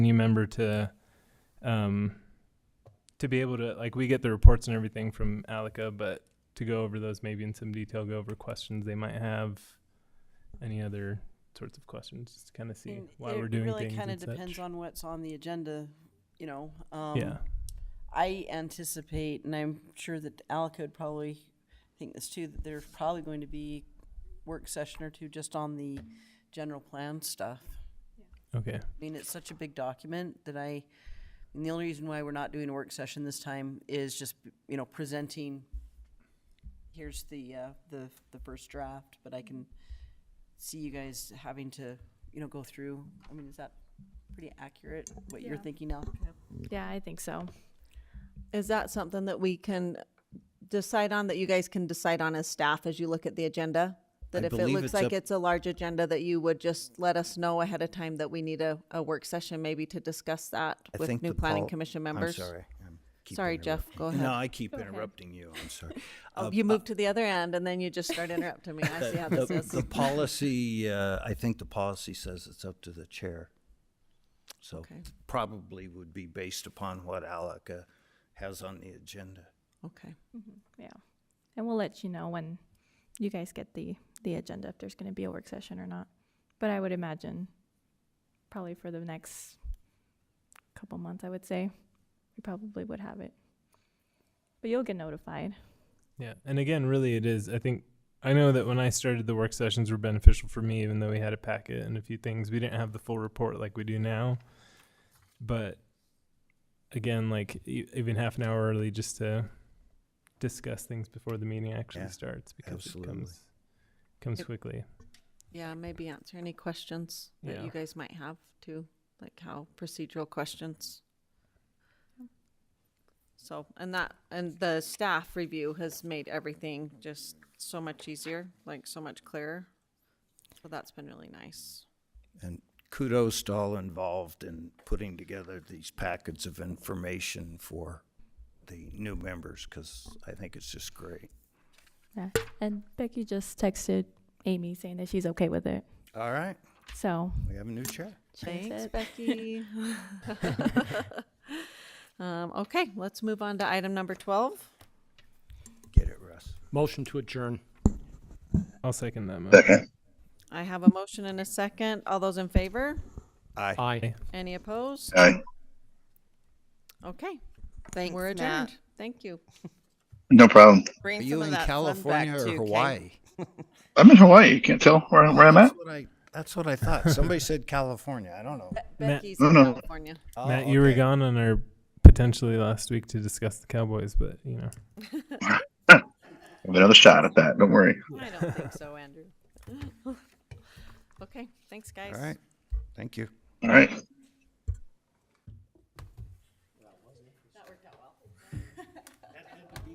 new member to um to be able to like we get the reports and everything from Alica, but to go over those maybe in some detail, go over questions they might have, any other sorts of questions, just to kind of see mean, why it we're doing really things. kind of and such. depends on what's on the agenda, you know. Um, yeah, I anticipate, and I'm sure that Alico would probably think this too, that there's probably going to be work session or two just on the general plan stuff. okay, I mean, it's such a big document that I, and the only reason why we're not doing a work session this time is just, you know, presenting, here's the, uh, the, the first draft, but I can see you guys having to, you know, go through. I mean, is that pretty accurate, what you're Yeah. thinking now? Yeah, I think so. Is that something that we can decide on, that you guys can decide on as staff as you look at the agenda? That I if it believe looks it's like up- it's a large agenda, that you would just let us know ahead of time that we need a, a work session maybe to discuss that I with think new the planning pol- commission I'm members? sorry. I'm- keep Sorry, Jeff, interrupting. go ahead. No, I keep interrupting you. I'm sorry. Oh, You moved to the other end and then you just start interrupting me. I see how uh, The, this is. the policy, uh, I think the policy says it's up to the chair. So Okay. probably would be based upon what Alec uh, has on the agenda. Okay. Yeah. And we'll let you know when you guys get the, the agenda, if there's gonna be a work session or not. But I would imagine probably for the next couple months, I would say, we probably would have it. But you'll get notified. yeah, and again, really, it is. I think I know that when I started, the work sessions were beneficial for me, even though we had a packet and a few things. We didn't have the full report like we do now, but again, like e- even half an hour early just to discuss things before the meeting actually Yeah, starts because absolutely. it comes comes Yep. quickly. Yeah, maybe answer any questions that Yeah. you guys might have too, like how procedural questions. So, and that, and the staff review has made everything just so much easier, like so much clearer. So that's been really nice. And kudos to all involved in putting together these packets of information for the new members because I think it's just great. Yeah. And Becky just texted Amy saying that she's okay with it. All right, So we have a new chair. she's Thanks, it. Becky. Um, okay, let's move on to item number twelve. Get it, Russ. Motion to adjourn. I'll second that. motion. I have a motion and a second. All those in favor? Aye. Aye. Any opposed? Aye. Okay, Thanks, we're Matt. adjourned. Thank you. No problem. Bring Are some you of in that fun California back or too, Kate. Hawaii? I'm in Hawaii. You can't tell where, where I'm at. That's what I, that's what I thought. Somebody said California. I don't know. Becky's No, in no. California. Matt, Oh, you were okay. gone on our potentially last week to discuss the Cowboys, but you know. Have another shot at that. Don't worry. I don't think so, Andrew. Okay, thanks, guys. All right. Thank you. All right.